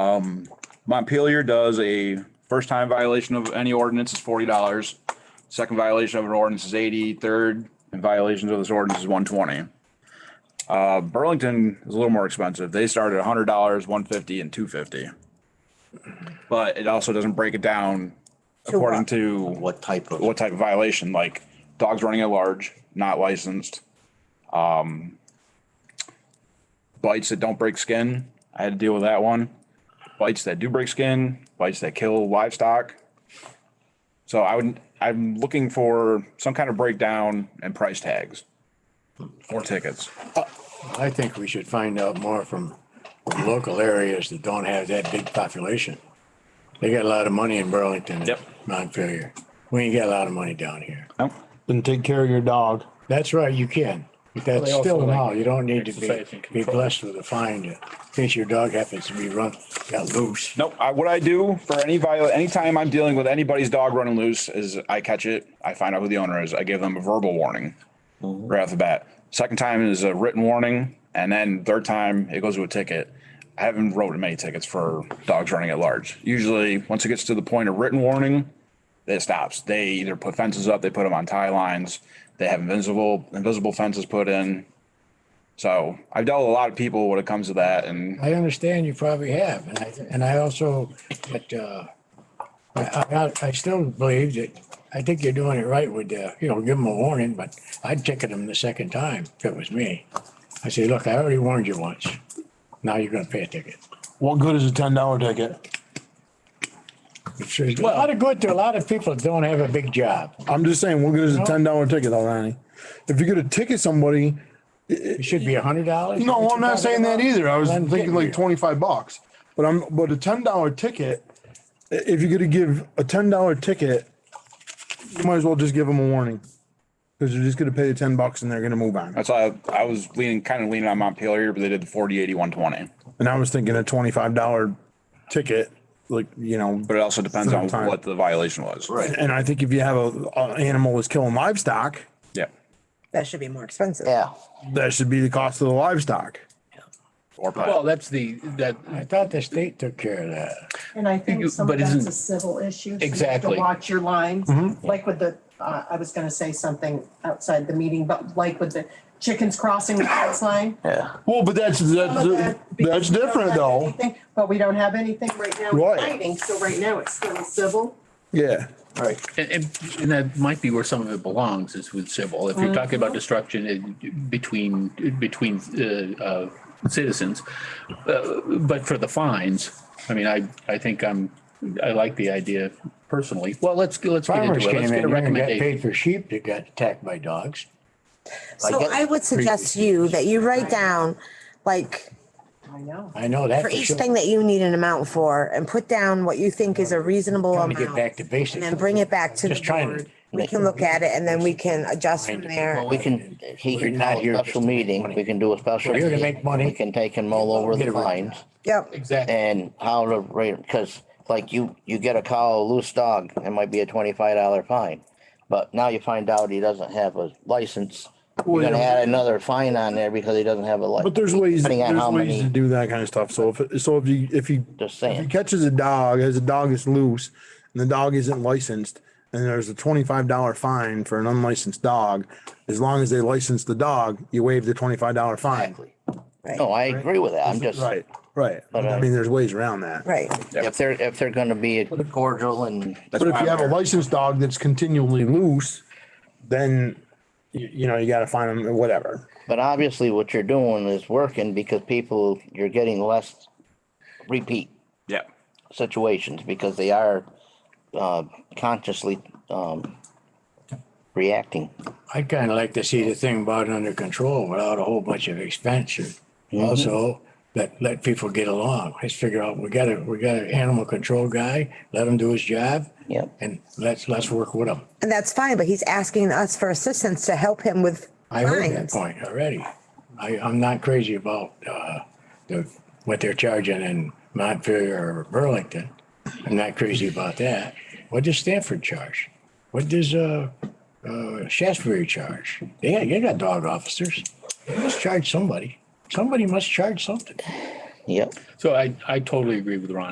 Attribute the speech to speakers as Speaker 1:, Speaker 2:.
Speaker 1: Um, Montpelier does a first time violation of any ordinance is forty dollars. Second violation of an ordinance is eighty. Third and violations of this ordinance is one twenty. Uh, Burlington is a little more expensive. They start at hundred dollars, one fifty and two fifty. But it also doesn't break it down
Speaker 2: To
Speaker 1: according
Speaker 2: what?
Speaker 1: to
Speaker 3: What type of,
Speaker 1: what type of violation, like dogs running at large, not licensed. Um, bites that don't break skin. I had to deal with that one. Bites that do break skin, bites that kill livestock. So I would, I'm looking for some kind of breakdown and price tags for tickets.
Speaker 4: I think we should find out more from local areas that don't have that big population. They got a lot of money in Burlington and
Speaker 1: Yep.
Speaker 4: Montpelier. We ain't got a lot of money down here.
Speaker 1: Oh,
Speaker 5: Then take care of your dog.
Speaker 4: That's right, you can. But that's
Speaker 6: They also
Speaker 4: still
Speaker 6: like
Speaker 4: law. You don't need to
Speaker 6: exercise
Speaker 4: be,
Speaker 6: and
Speaker 4: be
Speaker 6: control.
Speaker 4: blessed with a fine to- in case your dog happens to be run, got loose.
Speaker 1: Nope. I, what I do for any viol, anytime I'm dealing with anybody's dog running loose is I catch it. I find out who the owner is. I give them a verbal warning right off the bat. Second time is a written warning. And then third time it goes to a ticket. I haven't wrote many tickets for dogs running at large. Usually once it gets to the point of written warning, it stops. They either put fences up, they put them on tie lines. They have invisible, invisible fences put in. So I've dealt with a lot of people when it comes to that and
Speaker 4: I understand you probably have, and I, and I also, but, uh, I, I, I still believe that, I think you're doing it right with, uh, you know, give them a warning, but I'd ticket them the second time if it was me. I say, look, I already warned you once. Now you're gonna pay a ticket.
Speaker 5: What good is a ten dollar ticket?
Speaker 4: It's- there's A lot of good to a lot of people that don't have a big job.
Speaker 5: I'm just saying, what good is a ten dollar ticket, though, Ronnie? If you're gonna ticket somebody,
Speaker 4: It should be a hundred dollars.
Speaker 5: no, I'm not saying that either. I was
Speaker 4: I'm
Speaker 5: thinking
Speaker 4: getting
Speaker 5: like
Speaker 4: you.
Speaker 5: twenty five bucks. But I'm but a ten dollar ticket. i- If you're gonna give a ten dollar ticket, you might as well just give them a warning because they're just gonna pay the ten bucks and they're gonna move on.
Speaker 1: That's why I, I was leaning, kind of leaning on Montpelier, but they did the 40, 80, 120.
Speaker 5: And I was thinking a twenty five dollar ticket, like you know,
Speaker 1: But it also depends on
Speaker 5: Sometime.
Speaker 1: what the violation was.
Speaker 3: right,
Speaker 5: And I think if you have a, a animal that's killing livestock,
Speaker 1: Yeah.
Speaker 2: That should be more expensive.
Speaker 3: yeah.
Speaker 5: that should be the cost of the livestock.
Speaker 1: Or
Speaker 6: Well, that's the, that,
Speaker 4: I thought the state took care of that.
Speaker 7: And I
Speaker 6: You-
Speaker 7: think some
Speaker 6: but
Speaker 7: of that's
Speaker 6: isn't-
Speaker 7: a civil issue. so you have to
Speaker 6: Exactly.
Speaker 7: Watch your lines,
Speaker 5: Mm-hmm.
Speaker 7: like with the, uh, I was gonna say something outside the meeting, but like with the chickens crossing the fence line.
Speaker 3: Yeah.
Speaker 5: Well, but that's that's
Speaker 7: That-
Speaker 5: that's
Speaker 7: because we don't
Speaker 5: different
Speaker 7: have
Speaker 5: though.
Speaker 7: anything- But we don't have anything right now
Speaker 5: Right.
Speaker 7: fighting, so right now it's still civil.
Speaker 5: Yeah.
Speaker 3: Right.
Speaker 6: and, and and that might be where some of it belongs is with civil. If you're talking about destruction in- between, between, uh, uh, citizens. Uh, But for the fines, I mean, I, I think I'm, I like the idea personally. Well, let's, let's get
Speaker 4: Farmers
Speaker 6: into it.
Speaker 4: came in
Speaker 6: Let's
Speaker 4: here
Speaker 6: get a
Speaker 4: and got
Speaker 6: recommendation.
Speaker 4: paid for sheep that got attacked by dogs.
Speaker 2: So I would suggest you that you write down, like,
Speaker 7: I know.
Speaker 4: I know that.
Speaker 2: for each
Speaker 4: sure.
Speaker 2: thing that you need an amount for and put down what you think is a reasonable
Speaker 4: Trying to
Speaker 2: amount.
Speaker 4: get back to basics.
Speaker 2: And then bring it back to the
Speaker 4: Just trying to
Speaker 2: board. We can look at it and then we can adjust from there.
Speaker 3: Well, we can, he
Speaker 4: We're
Speaker 3: can
Speaker 4: not
Speaker 3: call a
Speaker 4: here just
Speaker 3: special
Speaker 4: to make
Speaker 3: meeting.
Speaker 4: money.
Speaker 3: We can do a special.
Speaker 4: We're here to
Speaker 3: meeting.
Speaker 4: make money.
Speaker 3: We can take and mull over
Speaker 4: Get
Speaker 3: the
Speaker 4: it right.
Speaker 3: fines
Speaker 2: Yep,
Speaker 6: Exactly.
Speaker 3: and how to rate, because like you, you get a call, a loose dog, it might be a twenty-five dollar fine. But now you find out he doesn't have a license. You're gonna add another fine on there because he doesn't have a license.
Speaker 5: But there's ways,
Speaker 3: Depending on
Speaker 5: there's
Speaker 3: how
Speaker 5: ways to
Speaker 3: many,
Speaker 5: do that kind of stuff. So if, it- so if you, if you,
Speaker 3: Just
Speaker 5: if he
Speaker 3: saying.
Speaker 5: catches a dog, as a dog is loose and the dog isn't licensed and there's a twenty-five dollar fine for an unlicensed dog, as long as they license the dog, you waive the twenty-five dollar fine.
Speaker 3: no, I agree with that. I'm just,
Speaker 5: Right, right.
Speaker 3: But,
Speaker 5: I
Speaker 3: uh,
Speaker 5: mean, there's ways around that.
Speaker 2: right.
Speaker 3: if they're, if they're gonna be cordial and
Speaker 5: But if you have a licensed dog that's continually loose, then you, you know, you gotta find them, whatever.
Speaker 3: But obviously what you're doing is working because people, you're getting less repeat
Speaker 1: yeah.
Speaker 3: situations because they are uh, consciously um, reacting.
Speaker 4: I'd kind of like to see the thing brought under control without a whole bunch of expense. Also, that let people get along. Let's figure out, we got a, we got an animal control guy, let him do his job.
Speaker 3: Yep.
Speaker 4: And let's, let's work with him.
Speaker 2: And that's fine, but he's asking us for assistance to help him with
Speaker 4: I heard that
Speaker 2: fines.
Speaker 4: point already. I, I'm not crazy about, uh, the, what they're charging in Montpelier or Burlington. I'm not crazy about that. What does Stanford charge? What does, uh, uh, Shaftesbury charge? They, got- they got dog officers. They must charge somebody. Somebody must charge something.
Speaker 3: Yep.
Speaker 6: So I, I totally agree with Ronnie.